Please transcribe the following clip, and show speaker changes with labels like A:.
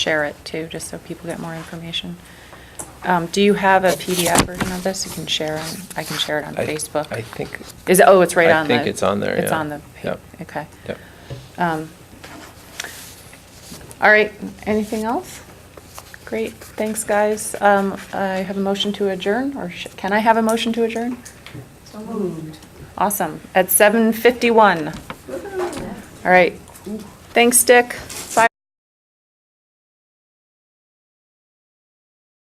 A: share it too, just so people get more information. Um, Do you have a PDF version of this? You can share, on- I can share it on
B: I-
A: Facebook.
B: I think,
A: Is, it- oh, it's right
B: I
A: on the.
B: think it's on there,
A: It's
B: yeah.
A: on the, pa-
B: Yep.
A: okay.
B: yep.
A: Um, All right, anything else? Great, thanks, guys. Um, I have a motion to adjourn, or sh- can I have a motion to adjourn?
C: So moved.
A: Awesome, at 7:51. All right, thanks, Dick. Bye.